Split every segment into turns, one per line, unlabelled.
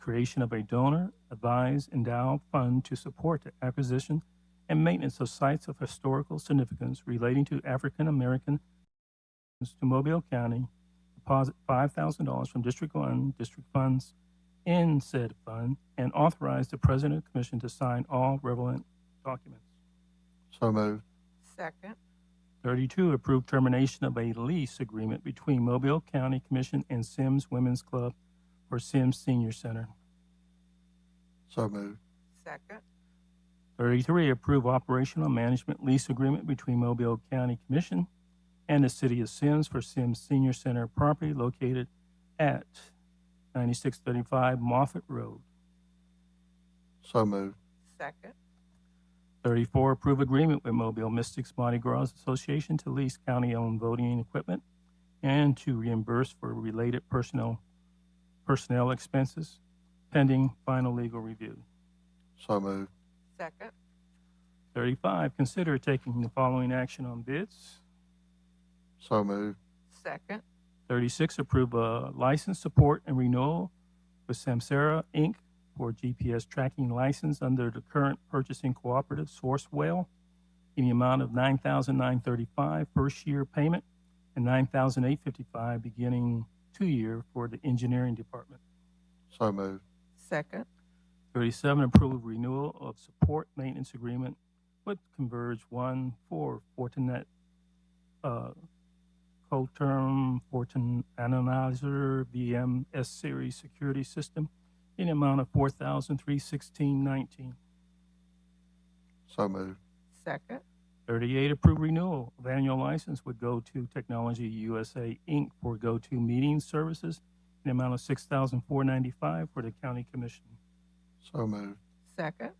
creation of a donor advised endowed fund to support the acquisition and maintenance of sites of historical significance relating to African Americans to Mobile County, deposit five thousand dollars from District One district funds in said fund, and authorize the President of the Commission to sign all relevant documents.
So moved.
Second.
Thirty-two, approve termination of a lease agreement between Mobile County Commission and Sims Women's Club for Sims Senior Center.
So moved.
Second.
33, approve operational management lease agreement between Mobile County Commission and the City of Sims for Sims Senior Center property located at 9635 Moffett Road.
So moved.
Second.
34, approve agreement with Mobile Mystics Mardi Gras Association to lease county-owned voting equipment and to reimburse for related personnel, personnel expenses pending final legal review.
So moved.
Second.
35, consider taking the following action on bids.
So moved.
Second.
36, approve a license support and renewal with Samsara Inc. for GPS tracking license under the current purchasing cooperative Sourcewell in the amount of $9,935 first year payment and $9,855 beginning two year for the engineering department.
So moved.
Second.
37, approve renewal of support maintenance agreement with Converge 1 for Fortinet, uh, Coterm Fortin Analyzer VM S Series Security System in the amount of 4316
So moved.
Second.
38, approve renewal of annual license with GoTo Technology USA Inc. for GoTo Meeting Services in the amount of 6495 for the county commission.
So moved.
Second.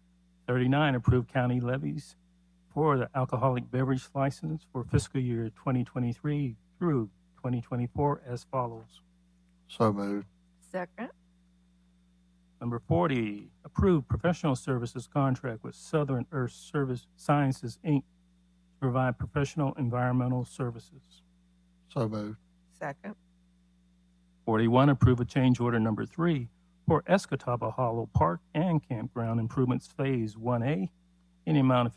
39, approve county levies for the alcoholic beverage license for fiscal year 2023 through 2024 as follows.
So moved.
Second.
Number 40, approve professional services contract with Southern Earth Service Sciences, Inc. to provide professional environmental services.
So moved.
Second.
41, approve a change order number three for Escataba Hollow Park and Campground Improvements Phase 1A in the amount of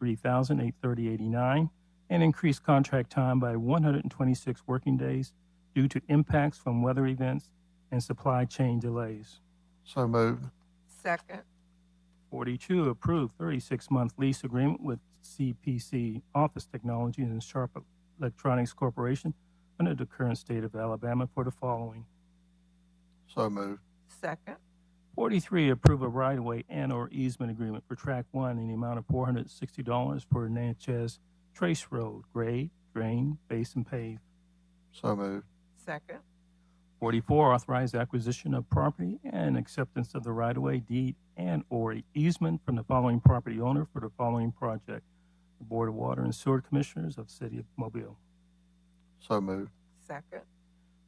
$53,830.89 and increase contract time by 126 working days due to impacts from weather events and supply chain delays.
So moved.
Second.
42, approve 36-month lease agreement with CPC Office Technologies and Sharp Electronics Corporation under the current state of Alabama for the following.
So moved.
Second.
43, approve a right-of-way and/or easement agreement for Track 1 in the amount of $460 for Natchez Trace Road, grade, drain, base, and pave.
So moved.
Second.
44, authorize acquisition of property and acceptance of the right-of-way deed and/or easement from the following property owner for the following project. The Board of Water and Sewer Commissioners of City of Mobile.
So moved.
Second.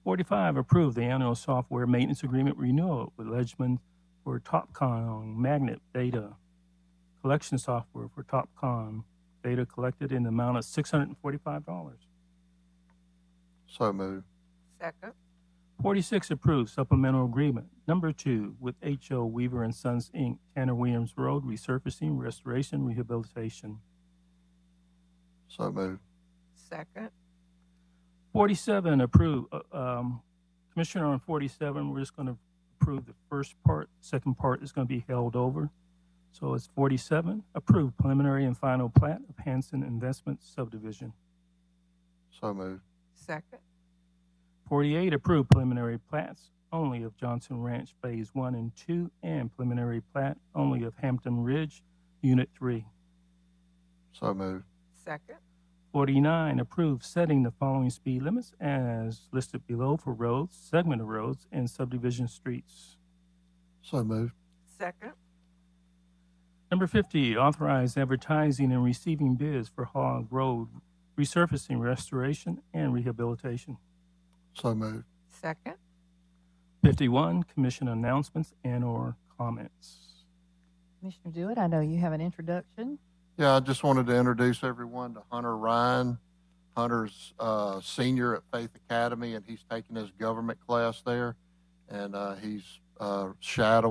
45, approve the annual software maintenance agreement renewal with Ledgman for TopCon magnet data collection software for TopCon data collected in the amount of $645.
So moved.
Second.
46, approve supplemental agreement number two with H.O. Weaver and Sons, Inc., Tanner Williams Road resurfacing, restoration, rehabilitation.
So moved.
Second.
47, approve, uh, um, Commissioner, on 47, we're just going to approve the first part. Second part is going to be held over. So it's 47, approve preliminary and final plat of Hanson Investment subdivision.
So moved.
Second.
48, approve preliminary plats only of Johnson Ranch Phase 1 and 2 and preliminary plat only of Hampton Ridge Unit 3.
So moved.
Second.
49, approve setting the following speed limits as listed below for roads, segment of roads, and subdivision streets.
So moved.
Second.
Number 50, authorize advertising and receiving bids for Hog Road resurfacing, restoration, and rehabilitation.
So moved.
Second.
51, commission announcements and/or comments.
Commissioner Dewitt, I know you have an introduction.
Yeah, I just wanted to introduce everyone to Hunter Ryan. Hunter's uh, senior at Faith Academy, and he's taking his government class there. And uh, he's uh, shadow